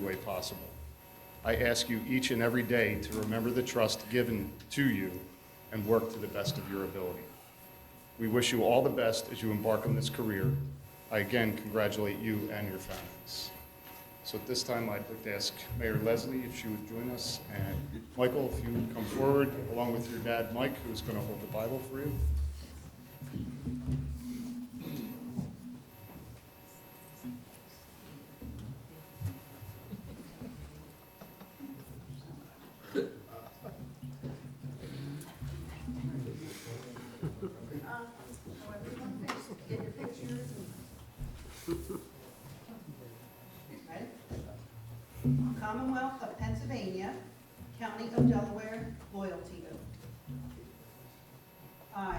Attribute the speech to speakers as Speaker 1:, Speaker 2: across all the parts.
Speaker 1: way possible. I ask you each and every day to remember the trust given to you and work to the best of your ability. We wish you all the best as you embark on this career. I again congratulate you and your families. So at this time, I'd like to ask Mayor Leslie if she would join us, and Michael, if you would come forward, along with your dad, Mike, who's going to hold the Bible for you.
Speaker 2: Get your pictures and. Ready? Commonwealth of Pennsylvania, County of Delaware, loyalty oath. I,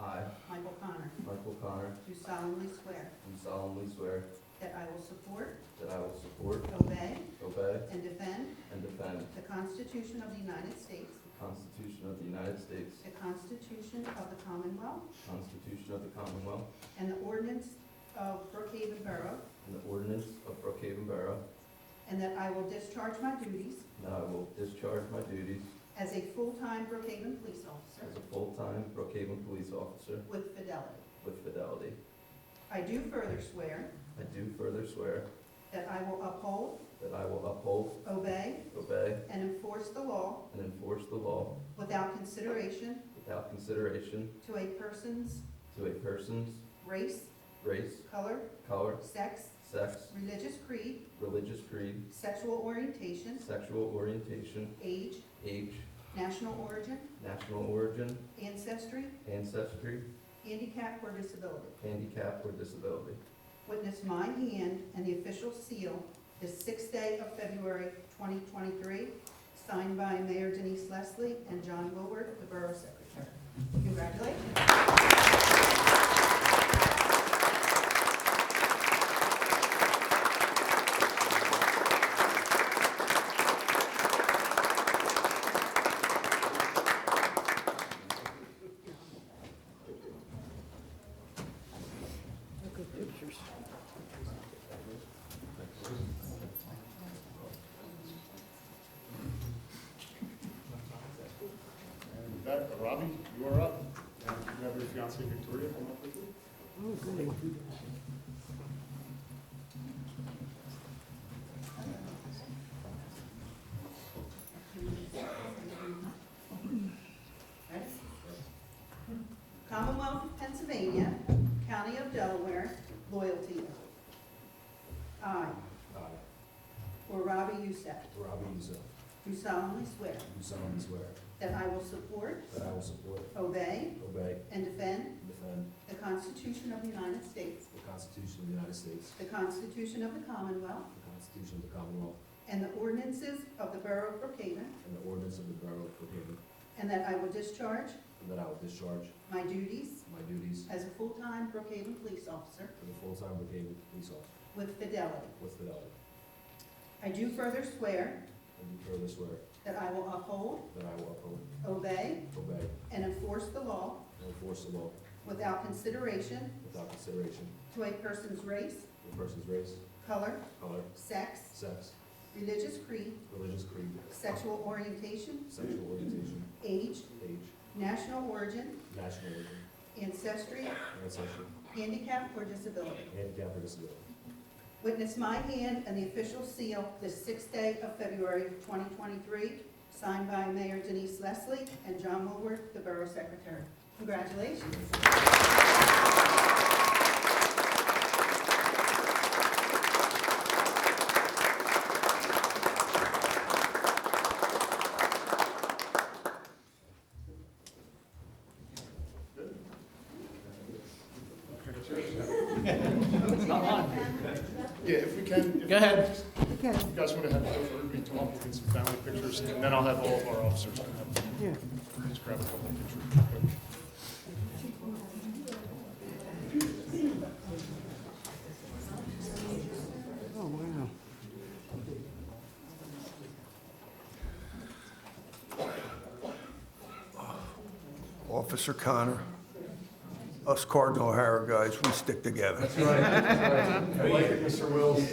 Speaker 3: I,
Speaker 2: Michael Connor,
Speaker 3: Michael Connor,
Speaker 2: do solemnly swear
Speaker 3: do solemnly swear
Speaker 2: that I will support,
Speaker 3: that I will support,
Speaker 2: obey,
Speaker 3: obey,
Speaker 2: and defend
Speaker 3: and defend
Speaker 2: the Constitution of the United States,
Speaker 3: the Constitution of the United States,
Speaker 2: the Constitution of the Commonwealth,
Speaker 3: the Constitution of the Commonwealth,
Speaker 2: and the ordinance of Brookhaven Borough,
Speaker 3: and the ordinance of Brookhaven Borough,
Speaker 2: and that I will discharge my duties
Speaker 3: and that I will discharge my duties
Speaker 2: as a full-time Brookhaven police officer
Speaker 3: as a full-time Brookhaven police officer
Speaker 2: With fidelity.
Speaker 3: with fidelity.
Speaker 2: I do further swear
Speaker 3: I do further swear
Speaker 2: that I will uphold,
Speaker 3: that I will uphold,
Speaker 2: obey,
Speaker 3: obey,
Speaker 2: and enforce the law
Speaker 3: and enforce the law
Speaker 2: without consideration
Speaker 3: without consideration
Speaker 2: to a person's
Speaker 3: to a person's
Speaker 2: race,
Speaker 3: race,
Speaker 2: color,
Speaker 3: color,
Speaker 2: sex,
Speaker 3: sex,
Speaker 2: religious creed,
Speaker 3: religious creed,
Speaker 2: sexual orientation,
Speaker 3: sexual orientation,
Speaker 2: age,
Speaker 3: age,
Speaker 2: national origin,
Speaker 3: national origin,
Speaker 2: ancestry,
Speaker 3: ancestry,
Speaker 2: handicap, or disability.
Speaker 3: handicap, or disability.
Speaker 2: Witness my hand and the official seal this sixth day of February 2023, signed by Mayor Denise Leslie and John Woolward, the Borough Secretary. Congratulations.
Speaker 1: And with that, Robbie, you are up. And you have your fiancee Victoria come up with you.
Speaker 2: Commonwealth of Pennsylvania, County of Delaware, loyalty oath. I,
Speaker 4: I,
Speaker 2: or Robbie Youssef,
Speaker 4: Robbie Uzel,
Speaker 2: do solemnly swear
Speaker 4: do solemnly swear
Speaker 2: that I will support,
Speaker 4: that I will support,
Speaker 2: obey,
Speaker 4: obey,
Speaker 2: and defend
Speaker 4: and defend
Speaker 2: the Constitution of the United States,
Speaker 4: the Constitution of the United States,
Speaker 2: the Constitution of the Commonwealth,
Speaker 4: the Constitution of the Commonwealth,
Speaker 2: and the ordinances of the Borough of Brookhaven,
Speaker 4: and the ordinance of the Borough of Brookhaven,
Speaker 2: and that I will discharge
Speaker 4: and that I will discharge
Speaker 2: my duties
Speaker 4: my duties
Speaker 2: as a full-time Brookhaven police officer
Speaker 4: as a full-time Brookhaven police officer
Speaker 2: with fidelity.
Speaker 4: with fidelity.
Speaker 2: I do further swear
Speaker 4: And do further swear
Speaker 2: that I will uphold,
Speaker 4: that I will uphold,
Speaker 2: obey,
Speaker 4: obey,
Speaker 2: and enforce the law
Speaker 4: and enforce the law
Speaker 2: without consideration
Speaker 4: without consideration
Speaker 2: to a person's race,
Speaker 4: to a person's race,
Speaker 2: color,
Speaker 4: color,
Speaker 2: sex,
Speaker 4: sex,
Speaker 2: religious creed,
Speaker 4: religious creed,
Speaker 2: sexual orientation,
Speaker 4: sexual orientation,
Speaker 2: age,
Speaker 4: age,
Speaker 2: national origin,
Speaker 4: national origin,
Speaker 2: ancestry,
Speaker 4: ancestry,
Speaker 2: handicap, or disability.
Speaker 4: handicap, or disability.
Speaker 2: Witness my hand and the official seal this sixth day of February 2023, signed by Mayor Denise Leslie and John Woolworth, the Borough Secretary. Congratulations.
Speaker 1: Yeah, if we can. Go ahead. You guys want to have everybody come up, we'll get some family pictures, and then I'll have all of our officers come up. Yeah. Just grab a couple of pictures real quick.
Speaker 5: Officer Connor, us Cardinal O'Hara guys, we stick together.
Speaker 1: Right, right. I like it, Mr. Wills.